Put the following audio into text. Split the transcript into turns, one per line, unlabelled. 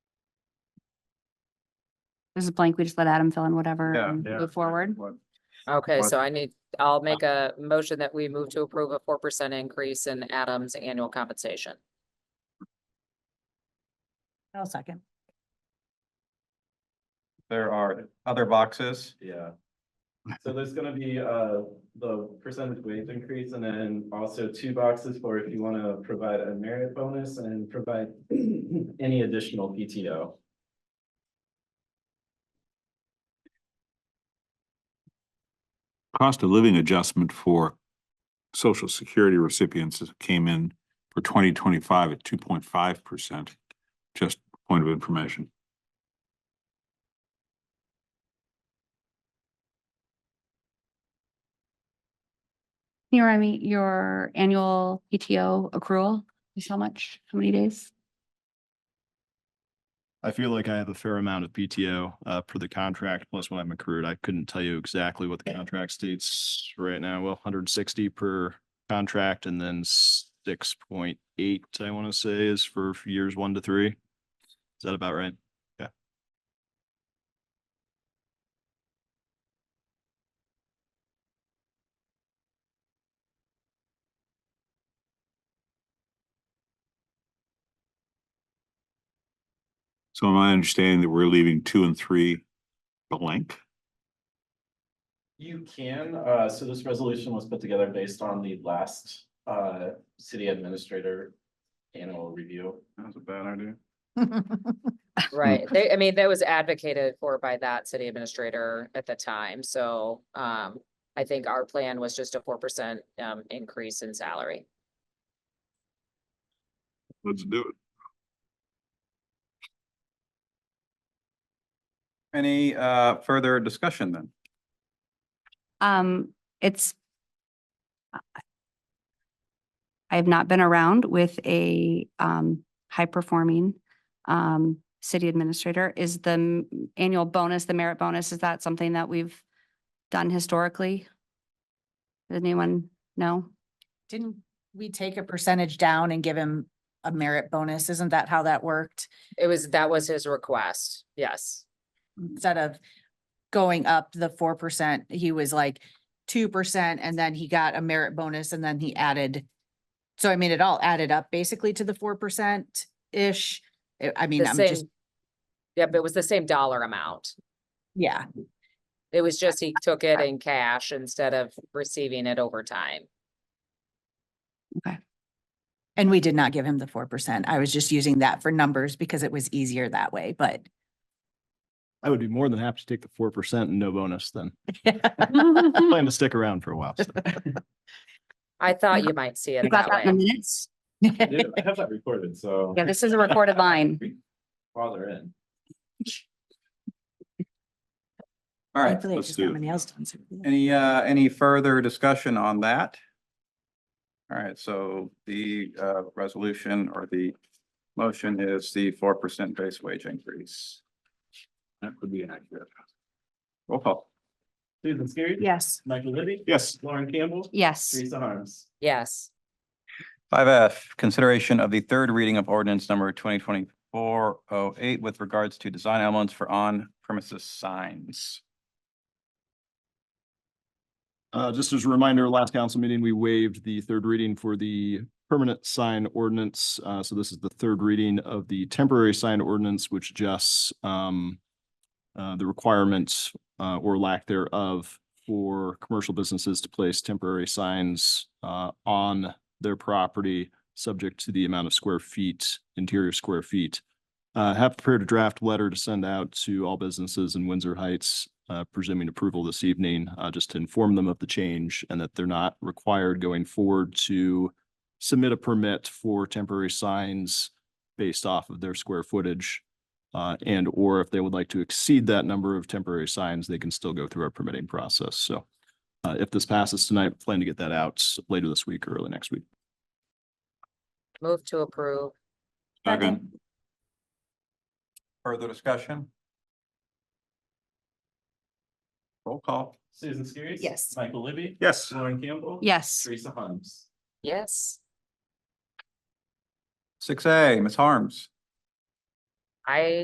this is blank. We just let Adam fill in whatever
Yeah,
and
yeah.
move forward.
Okay,
What-
so I need, I'll make a motion that we move to approve a four percent increase in Adam's annual compensation.
I'll second.
There are other boxes.
Yeah. So there's gonna be uh the percentage wage increase and then also two boxes for if you wanna provide a merit bonus and provide any additional PTO.
cost of living adjustment for social security recipients came in for twenty twenty-five at two point five percent. Just point of information.
Can you remind me, your annual PTO accrual is how much? How many days?
I feel like I have a fair amount of PTO uh per the contract plus what I'm accrued. I couldn't tell you exactly what the contract states right now. Well, hundred and sixty per contract and then six point eight, I want to say, is for years one to three. Is that about right?
So am I understanding that we're leaving two and three blank?
You can, uh so this resolution was put together based on the last uh city administrator annual review.
That's a bad idea.
Right, they, I mean, that was advocated for by that city administrator at the time, so um I think our plan was just a four percent um increase in salary.
Let's do it.
Any uh further discussion then?
Um, it's I have not been around with a um high performing um city administrator. Is the m- annual bonus, the merit bonus, is that something that we've done historically? Does anyone know?
Didn't we take a percentage down and give him a merit bonus? Isn't that how that worked?
It was, that was his request, yes.
Instead of going up the four percent, he was like two percent and then he got a merit bonus and then he added. So I mean, it all added up basically to the four percent-ish. I- I mean,
The
I'm just,
same. Yep, it was the same dollar amount.
yeah,
It was just he took it in cash instead of receiving it over time.
and we did not give him the four percent. I was just using that for numbers because it was easier that way, but.
I would be more than happy to take the four percent and no bonus then. Plan to stick around for a while. so.
I thought you might see it
Got
that
that in the
way.
minutes?
I do- I have that recorded, so
Yeah, this is a recorded line.
while they're in.
All right,
Hopefully, it's
let's
just
do
not
it.
my nails done, so-
any uh any further discussion on that? All right, so the uh resolution or the motion is the four percent base wage increase.
That would be accurate.
Roll call.
Susan Skiris.
Yes.
Michael Libby.
Yes.
Lauren Campbell.
Yes.
Teresa Harms.
Yes.
Five F, consideration of the third reading of ordinance number twenty twenty-four oh eight with regards to design elements for on premises signs.
Uh, just as a reminder, last council meeting, we waived the third reading for the permanent sign ordinance. Uh, so this is the third reading of the temporary sign ordinance, which adjusts um uh, the requirements uh, or lack thereof for commercial businesses to place temporary signs uh, on their property, subject to the amount of square feet, interior square feet. Uh, have prepared a draft letter to send out to all businesses in Windsor Heights, uh, presuming approval this evening, uh, just to inform them of the change and that they're not required going forward to submit a permit for temporary signs based off of their square footage. Uh, and or if they would like to exceed that number of temporary signs, they can still go through our permitting process. So uh, if this passes tonight, plan to get that out later this week or early next week.
Move to approve.
Second.
Further discussion? Roll call.
Susan Skiris.
Yes.
Michael Libby.
Yes.
Lauren Campbell.
Yes.
Teresa Harms.
Yes.
Six A, Ms. Harms.
I